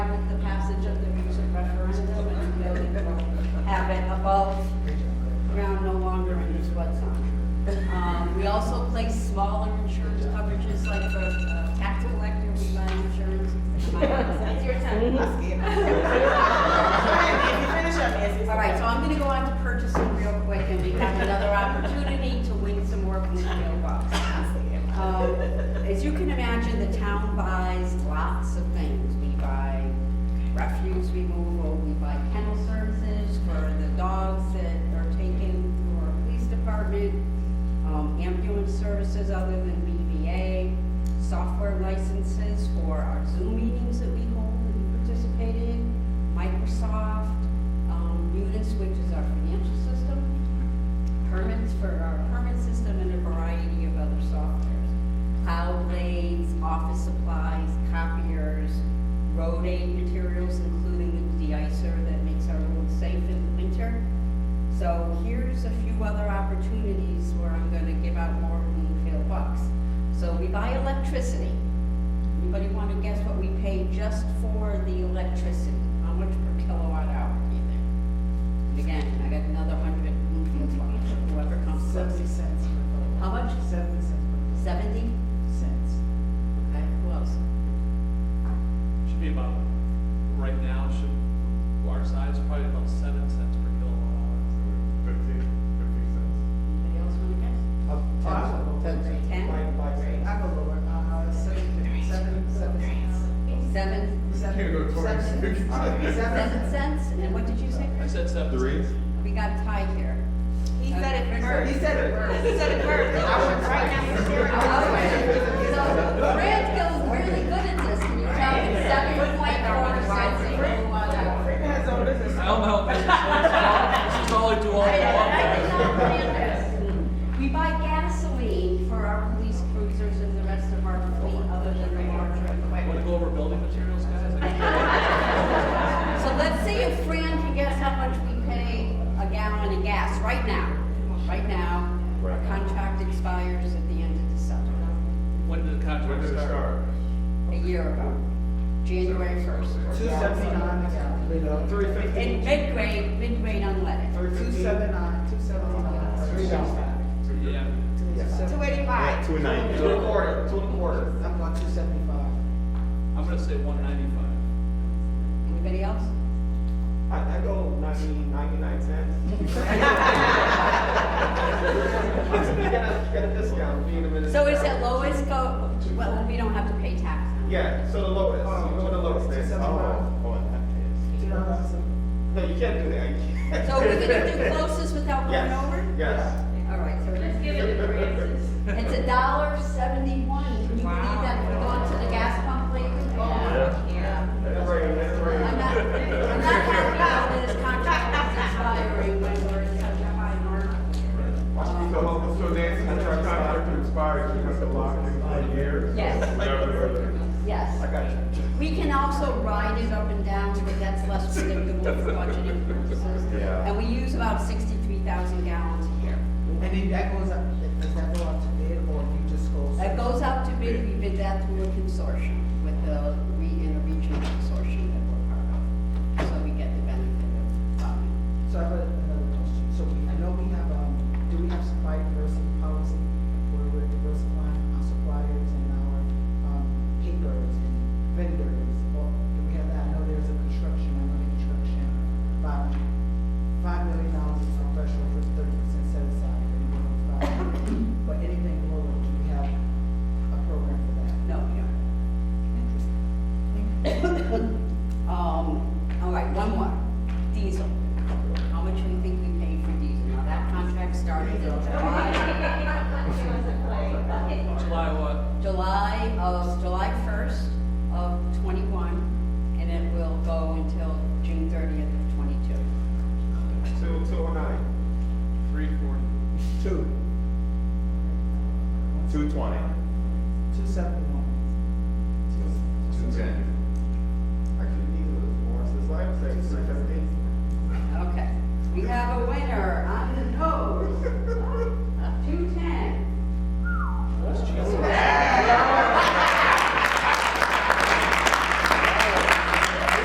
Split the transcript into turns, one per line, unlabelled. above ground no longer and is what's on. Um, We also place smaller insurance coverages, like for uh, tax collector, we buy insurance.
It's your time. I'll skip. Finish up, Nancy.
All right, so I'm gonna go on to purchasing real quick, and we have another opportunity to win some more from the mailbox. Um, As you can imagine, the town buys lots of things. We buy refuse removal, we buy kennel services for the dogs that are taken to our police department, um, ambulance services other than BVA, software licenses for our Zoom meetings that we hold and participate in, Microsoft, um, Munis, which is our financial system, permits for our permit system and a variety of other softwares. Cloud blades, office supplies, copiers, road aid materials, including the deicer that makes our roads safe in the winter. So here's a few other opportunities where I'm gonna give out more Greenfield bucks. So we buy electricity. Anybody wanna guess what we pay just for the electricity? How much per kilowatt hour do you think? And again, I got another hundred Bloomfield bucks, whoever comes
Seventy
closest.
cents. per
How much?
vote. Seventy cents.
Seventy?
per vote. Cents.
Okay, who else?
Should be about, right now, should, our size, probably about seven cents per kilowatt hour.
Fifteen, fifteen cents.
Anybody else wanna guess? Ten?
Great. I go lower. Uh, seven, seven, seven.
Seven?
Seven.
Can't go towards
seven-
fifty.
seven-
Seven cents? And what did you say?
I
Chris?
said seven
Three?
cents.
We got a tie here. Uh,
He said it
He
first.
said it first.
He said it first. I was right now
Okay, So Brad feels really good at this, can you tell him seven point four cents a kilowatt hour?
Rick has own business.
I don't know, this is, this is all I do all
I
day
did- I did
long.
not plan this. We buy gasoline for our police cruisers and the rest of our fleet other than the larger.
Want to go over building materials, guys?
So let's see if Fran can guess how much we pay a gallon of gas right now. Right now, our
Right.
contract expires at the end of December,
When did the
When
contract
did it
start?
start?
a year ago, January first.
Two seventy-nine a gallon.
Three
In mid-grade, mid-grade unleaded.
Two seventy-nine, two seventy-nine. Three dollars.
Yeah.
Two eighty-five.
Two ninety.
Two and a quarter, two and a quarter. I'm going two seventy-five.
I'm gonna say one ninety-five.
Anybody else?
I, I go ninety, ninety-nine cents. Get a, get a discount, being a minute.
So is it lowest go, well, we don't have to pay tax on it.
Yeah, so the lowest, you go to the lowest.
Two
Oh,
seventy-five. Two dollars.
No, you can't do that. You can't.
So we're gonna do closest without going
Yes,
over?
yes.
All right, so
Let's give it to Francis.
it's a dollar seventy-one. Can you believe that we're going to the gas pump lately? Oh,
Yeah.
That's right, that's right.
I'm not, I'm not happy about this contract is expiring when we're in such a high mark.
So, so Nancy, that's our contract expires, you have to lock in for years.
Yes.
Whatever. I
Yes.
got you.
We can also ride it up and down, but that's less predictable for budgeting purposes.
Yeah.
And we use about sixty-three thousand gallons a year.
And then that goes up, does that go up to bid or you just go?
That goes out to bid, we bid that through a consortium with the, re- in a regional um, Um,
um, um,
oh